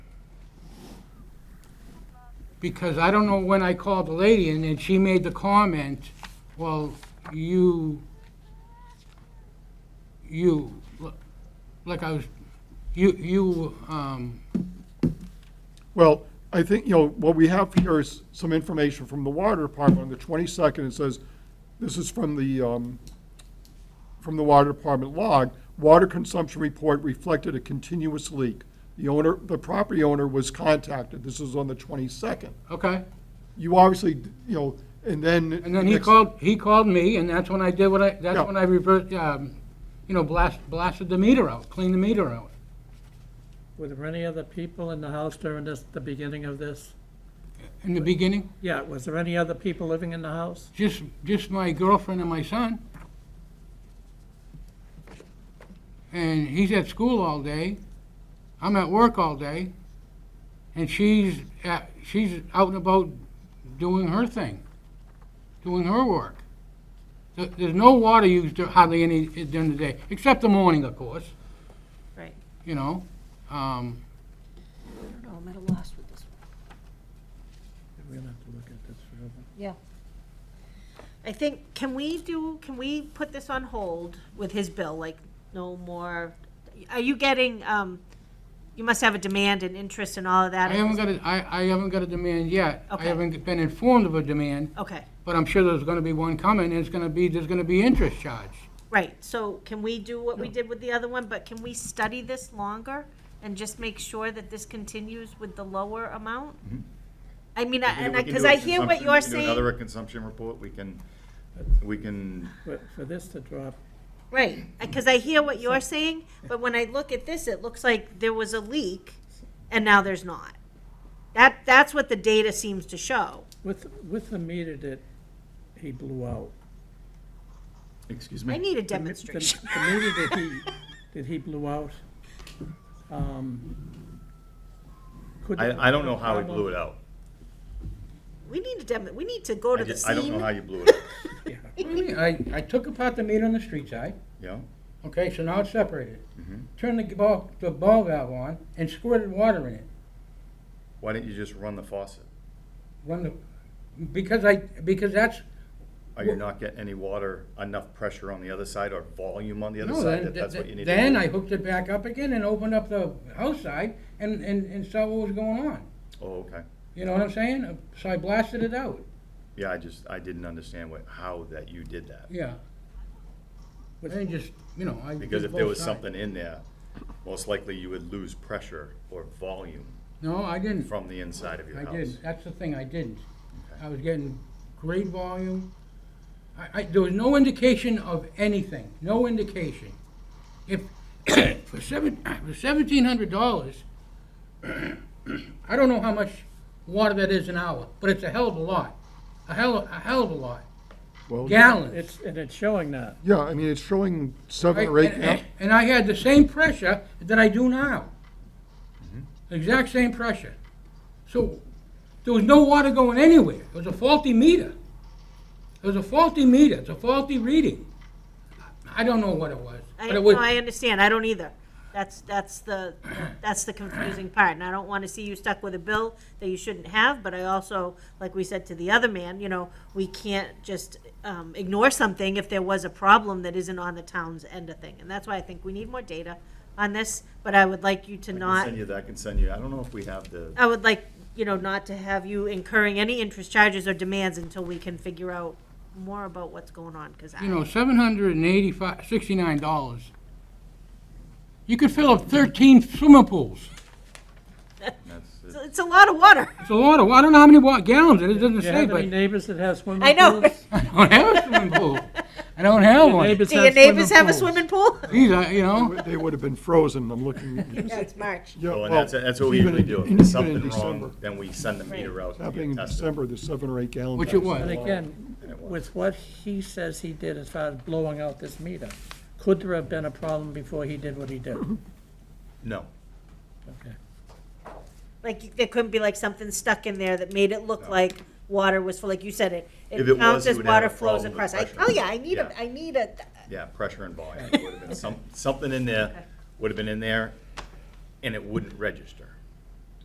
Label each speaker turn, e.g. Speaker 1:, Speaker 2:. Speaker 1: because I don't know when I called the lady, and then she made the comment, well, you, you, like I was, you, you, um,
Speaker 2: Well, I think, you know, what we have here is some information from the water department on the 22nd. It says, this is from the, um, from the water department log. Water consumption report reflected a continuous leak. The owner, the property owner was contacted. This is on the 22nd.
Speaker 1: okay.
Speaker 2: You obviously, you know, and then.
Speaker 1: And then he
Speaker 2: next-
Speaker 1: called, he called me, and that's when I did what I, that's
Speaker 2: Yeah.
Speaker 1: when I reversed, um, you know, blast, blasted the meter out, cleaned the meter out.
Speaker 3: Were there any other people in the house during this, the beginning of this?
Speaker 1: In the beginning,
Speaker 3: Yeah, was there any other people living in the house?
Speaker 1: just, just my girlfriend and my son. And he's at school all day, I'm at work all day, and she's at, she's out and about doing her thing, doing her work. There- There's no water used hardly any during the day, except the morning, of course.
Speaker 4: Right.
Speaker 1: you know? Um,
Speaker 4: I don't know, I'm at a loss with this one.
Speaker 3: We're gonna have to look at this further.
Speaker 4: Yeah. I think, can we do, can we put this on hold with his bill, like, no more? Are you getting, um, you must have a demand and interest and all of that?
Speaker 1: I haven't got a, I, I haven't got a demand yet. I
Speaker 4: Okay.
Speaker 1: haven't been informed of a demand,
Speaker 4: Okay,
Speaker 1: but I'm sure there's gonna be one coming, and it's gonna be, there's gonna be interest charge.
Speaker 4: right, so can we do what we did with the other one, but can we study this longer? And just make sure that this continues with the lower amount? I mean, I-
Speaker 5: Mm-hmm. We
Speaker 4: and
Speaker 5: can
Speaker 4: I,
Speaker 5: do
Speaker 4: because
Speaker 5: a
Speaker 4: I hear what
Speaker 5: consumption-
Speaker 4: you're
Speaker 5: We can do
Speaker 4: saying,
Speaker 5: another consumption report, we can, we can,
Speaker 3: But for this to drop,
Speaker 4: right, because I hear what you're saying, but when I look at this, it looks like there was a leak, and now there's not. That, that's what the data seems to show.
Speaker 3: with, with the meter that he blew out.
Speaker 5: excuse
Speaker 4: I
Speaker 5: me,
Speaker 4: need
Speaker 3: the mi-
Speaker 4: a
Speaker 3: the-
Speaker 4: demonstration.
Speaker 3: The meter that he, that he blew out, um. could have
Speaker 5: I, I don't
Speaker 3: been a
Speaker 5: know how he
Speaker 3: problem.
Speaker 5: blew it out.
Speaker 4: We need a demo, we need to go
Speaker 5: I
Speaker 4: to the
Speaker 5: just, I don't know how
Speaker 4: scene.
Speaker 5: you blew it out,
Speaker 1: I, I took apart the meter on the street side,
Speaker 5: you know?
Speaker 1: okay, so now it's separated.
Speaker 5: Mm-hmm.
Speaker 1: Turned the ball, the ball valve on and squirted water in it.
Speaker 5: Why didn't you just run the faucet?
Speaker 1: When the, because I, because that's,
Speaker 5: Are you not getting any water, enough pressure on the other side or volume on the other
Speaker 1: no,
Speaker 5: side?
Speaker 1: then,
Speaker 5: that That's what you need to
Speaker 1: th-
Speaker 5: do.
Speaker 1: then I hooked it back up again and opened up the house side and, and, and saw what was going on.
Speaker 5: Oh, okay.
Speaker 1: You know what I'm saying? So I blasted it out,
Speaker 5: Yeah, I just, I didn't understand what, how that you did that.
Speaker 1: yeah. But then just, you know, I. did
Speaker 5: Because if there
Speaker 1: both
Speaker 5: was
Speaker 1: sides.
Speaker 5: something in there, most likely you would lose pressure or volume
Speaker 1: No, I didn't.
Speaker 5: from the inside of your
Speaker 1: I
Speaker 5: house.
Speaker 1: didn't. That's the thing, I didn't. I was getting great volume. I, I, there was no indication of anything, no indication. If, for seven, for seventeen hundred dollars, I don't know how much water that is an hour, but it's a hell of a lot. A hell, a hell of a lot,
Speaker 2: Well,
Speaker 1: gallons.
Speaker 3: It's, and it's showing that.
Speaker 2: Yeah, I mean, it's showing
Speaker 1: right?
Speaker 2: seven or eight.
Speaker 1: And-
Speaker 2: gal-
Speaker 1: And I had the same pressure that I do now. The exact same pressure. So there was no water going anywhere. It was a faulty meter. It was a faulty meter. It's a faulty reading. I don't know what it was.
Speaker 4: I,
Speaker 1: but it
Speaker 4: no,
Speaker 1: was.
Speaker 4: I understand, I don't either. That's, that's the, that's the confusing part, and I don't wanna see you stuck with a bill that you shouldn't have, but I also, like we said to the other man, you know, we can't just, um, ignore something if there was a problem that isn't on the town's end of thing, and that's why I think we need more data on this, but I would like you to
Speaker 5: I can
Speaker 4: not,
Speaker 5: send you that, I can send you, I don't know if we have the,
Speaker 4: I would like, you know, not to have you incurring any interest charges or demands until we can figure out more about what's going on, cause
Speaker 1: you
Speaker 4: I,
Speaker 1: know, seven hundred and eighty-five, sixty-nine dollars. You could fill up thirteen swimming pools.
Speaker 5: that's, it.
Speaker 4: it's it's a lot of water.
Speaker 1: It's a lot of, I don't know how many wa- gallons, it is, doesn't
Speaker 3: Do you
Speaker 1: say,
Speaker 3: have any
Speaker 1: but
Speaker 3: neighbors that have swimming pools?
Speaker 4: I know.
Speaker 1: I don't have a swimming pool. I don't have
Speaker 3: Your
Speaker 1: one.
Speaker 3: neighbors
Speaker 4: Do your
Speaker 3: have
Speaker 4: neighbors have a
Speaker 3: pools?
Speaker 4: swimming pool?
Speaker 1: These are, you know,
Speaker 2: They would have been frozen, I'm looking.
Speaker 4: Yeah, it's March.
Speaker 2: Yeah,
Speaker 5: well, Oh, and
Speaker 2: well,
Speaker 5: that's, that's what we
Speaker 2: even
Speaker 5: usually
Speaker 2: in-
Speaker 5: do. If
Speaker 2: even
Speaker 5: there's
Speaker 2: in
Speaker 5: something
Speaker 2: December.
Speaker 5: wrong, then we send the meter out to
Speaker 2: Happening
Speaker 5: get
Speaker 2: in
Speaker 5: tested.
Speaker 2: December, there's seven or eight gallons.
Speaker 1: which it was.
Speaker 3: And again, uh, with what he says he did as far as blowing out this meter, could there have been a problem before he did what he did?
Speaker 5: No,
Speaker 3: Okay.
Speaker 4: Like, there couldn't be like something stuck in there that made it look like water was full, like you said it.
Speaker 5: If it
Speaker 4: It
Speaker 5: was,
Speaker 4: counts
Speaker 5: you
Speaker 4: as
Speaker 5: would have
Speaker 4: water
Speaker 5: a
Speaker 4: flows
Speaker 5: problem
Speaker 4: across.
Speaker 5: with
Speaker 4: I,
Speaker 5: pressure.
Speaker 4: oh yeah, I need a,
Speaker 5: Yeah.
Speaker 4: I need a,
Speaker 5: yeah, pressure and volume, It would have been some, something in there, would have been in there, and it wouldn't register.